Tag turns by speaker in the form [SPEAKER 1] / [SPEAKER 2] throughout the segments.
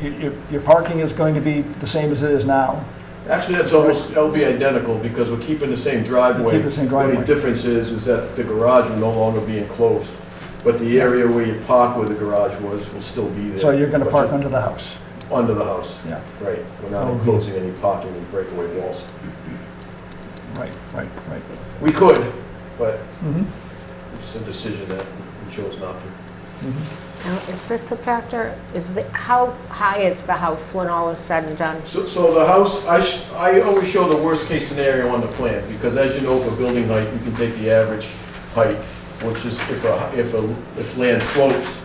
[SPEAKER 1] Your- Your your parking is going to be the same as it is now.
[SPEAKER 2] Actually, that's almost, that would be identical, because we're keeping the same driveway.
[SPEAKER 1] Keep the same driveway.
[SPEAKER 2] The only difference is, is that the garage will no longer be enclosed, but the area where you park where the garage was will still be there.
[SPEAKER 1] So you're going to
[SPEAKER 2] But
[SPEAKER 1] park under the house.
[SPEAKER 2] Under the house,
[SPEAKER 1] Yeah,
[SPEAKER 2] right. We're not
[SPEAKER 1] Mhm.
[SPEAKER 2] enclosing any parking with breakaway walls.
[SPEAKER 1] right, right, right.
[SPEAKER 2] We could, but
[SPEAKER 1] Mhm,
[SPEAKER 2] it's a decision that we chose not to.
[SPEAKER 1] mhm.
[SPEAKER 3] Now, is this a factor? Is the, how high is the house when all is said and done?
[SPEAKER 2] So, so the house, I, sh- I always show the worst-case scenario on the plan, because as you know, for building height, you can take the average height, which is if a, if a, if land slopes,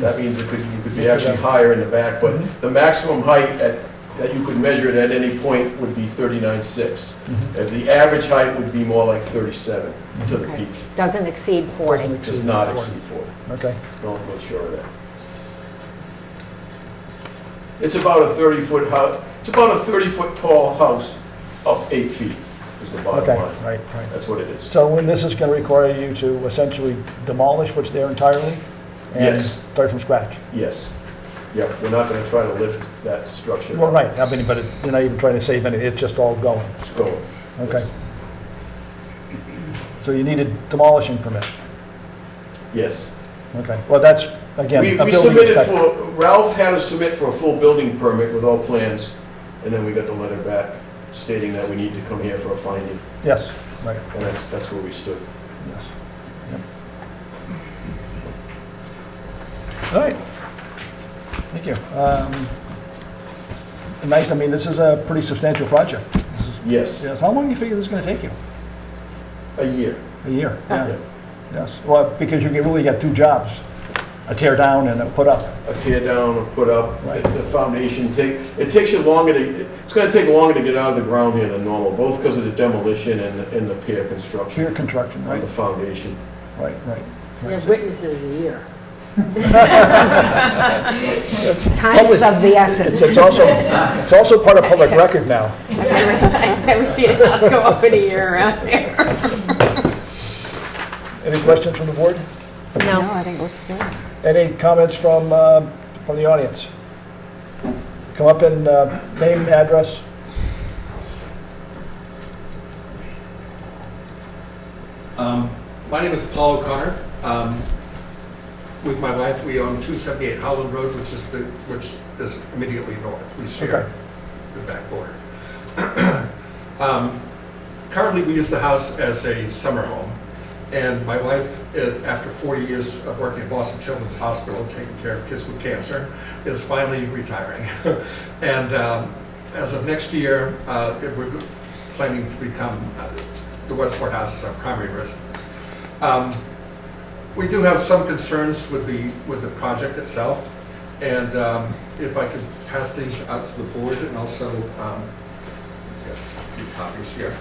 [SPEAKER 2] That means it could, you could be actually higher in the back, but the maximum height at, that you could measure it at any point would be 39.6. And The average height would be more like 37 to the
[SPEAKER 3] Okay.
[SPEAKER 2] peak.
[SPEAKER 3] Doesn't exceed 40.
[SPEAKER 2] Does not exceed 40.
[SPEAKER 1] Okay.
[SPEAKER 2] No, I'm not sure of that. It's about a 30-foot house, it's about a 30-foot tall house up eight feet is the bottom
[SPEAKER 1] Okay,
[SPEAKER 2] line.
[SPEAKER 1] right, right.
[SPEAKER 2] That's what it is.
[SPEAKER 1] So when this is going to require you to essentially demolish what's there entirely?
[SPEAKER 2] Yes.
[SPEAKER 1] And start from scratch?
[SPEAKER 2] Yes. Yep, we're not going to try to lift that structure.
[SPEAKER 1] Well, right, I mean, but it- you're not even trying to save any, it's just all going.
[SPEAKER 2] It's going.
[SPEAKER 1] Okay. So you need a demolishing permit?
[SPEAKER 2] Yes.
[SPEAKER 1] Okay, well, that's, again,
[SPEAKER 2] We
[SPEAKER 1] a
[SPEAKER 2] we
[SPEAKER 1] building
[SPEAKER 2] submitted
[SPEAKER 1] inspector.
[SPEAKER 2] for, Ralph had us submit for a full building permit with all plans, and then we got the letter back stating that we need to come here for a finding,
[SPEAKER 1] Yes, right,
[SPEAKER 2] and that's, that's where we stood.
[SPEAKER 1] yes. Yep. All right, thank you. Um, Nice, I mean, this is a pretty substantial project. This is-
[SPEAKER 2] Yes,
[SPEAKER 1] Yes, how long do you figure this is going to take you?
[SPEAKER 2] a year.
[SPEAKER 1] A year?
[SPEAKER 2] Yeah.
[SPEAKER 1] Yeah, yes, well, because you can really got two jobs, a tear down and a put up.
[SPEAKER 2] A tear down or put up,
[SPEAKER 1] Right.
[SPEAKER 2] the foundation take, it takes you longer to, it's gonna take longer to get out of the ground here than normal, both because of the demolition and, the- and the pier construction
[SPEAKER 1] Sheer construction,
[SPEAKER 2] on
[SPEAKER 1] right,
[SPEAKER 2] the foundation.
[SPEAKER 1] right, right.
[SPEAKER 4] We have witnesses a year.
[SPEAKER 3] Time is of the essence.
[SPEAKER 1] It's it's also, it's also part of public record now.
[SPEAKER 4] I was seeing a house go up in a year around here.
[SPEAKER 1] Any questions from the board?
[SPEAKER 3] No,
[SPEAKER 5] No, I think it looks good.
[SPEAKER 1] Any comments from, uh, from the audience? Come up and uh, name, address.
[SPEAKER 6] Um, My name is Paul O'Connor. Um, With my wife, we own 278 Howland Road, which is the, which is immediately north. We
[SPEAKER 1] Okay.
[SPEAKER 6] share the back border. Um, Currently, we use the house as a summer home, and my wife, eh, after 40 years of working at Boston Children's Hospital, taking care of kids with cancer, is finally retiring. And um, as of next year, uh, eh, we're planning to become, uh, the Westport House as our primary residence. Um, We do have some concerns with the, with the project itself, and um, if I could pass these out to the board and also um, get a few copies here.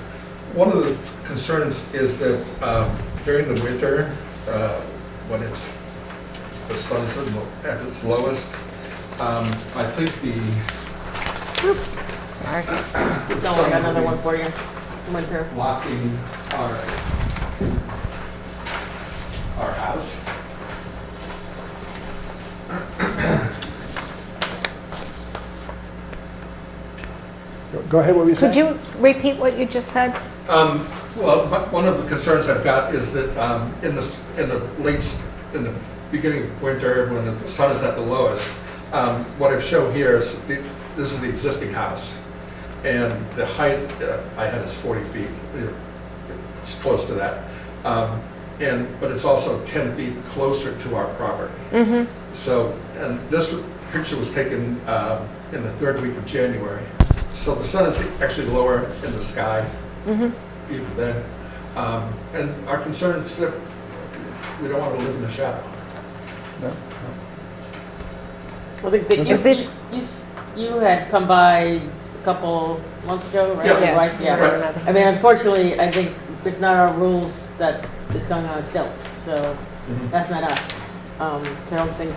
[SPEAKER 6] One of the concerns is that um, during the winter, uh, when it's, the sun's at lo- at its lowest, um, I think the
[SPEAKER 3] sorry.
[SPEAKER 6] the
[SPEAKER 4] Don't worry,
[SPEAKER 6] sun
[SPEAKER 4] another
[SPEAKER 6] will
[SPEAKER 4] one
[SPEAKER 6] be
[SPEAKER 4] for you. Winter.
[SPEAKER 6] blocking our, our house.
[SPEAKER 1] Go ahead, what were you saying?
[SPEAKER 3] Could you repeat what you just said?
[SPEAKER 6] Um, Well, my- one of the concerns I've got is that um, in the, s- in the late, s- in the beginning of winter, when the sun is at the lowest, um, what I've shown here is, the- this is the existing house, and the height uh, I had is 40 feet. It's close to that. Um, And, but it's also 10 feet closer to our property. So, and this picture was taken um, in the third week of January. So the sun is actually lower in the sky even then. Um, And our concern is that we don't want to live in the shadow.
[SPEAKER 4] I think that
[SPEAKER 3] Is
[SPEAKER 4] you,
[SPEAKER 3] this-
[SPEAKER 4] you, s- you had come by a couple months ago, right?
[SPEAKER 6] Yeah.
[SPEAKER 4] Your wife,
[SPEAKER 6] Right.
[SPEAKER 4] I mean, unfortunately, I think it's not our rules that it's going on stilts, so that's not us. Um, so I don't think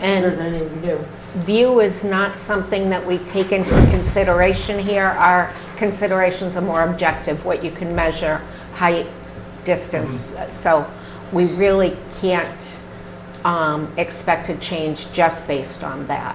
[SPEAKER 4] there's
[SPEAKER 3] And
[SPEAKER 4] anything we can do.
[SPEAKER 3] view is not something that we take into consideration here. Our considerations are more objective, what you can measure, height, distance. So we really can't um, expected change just based on that.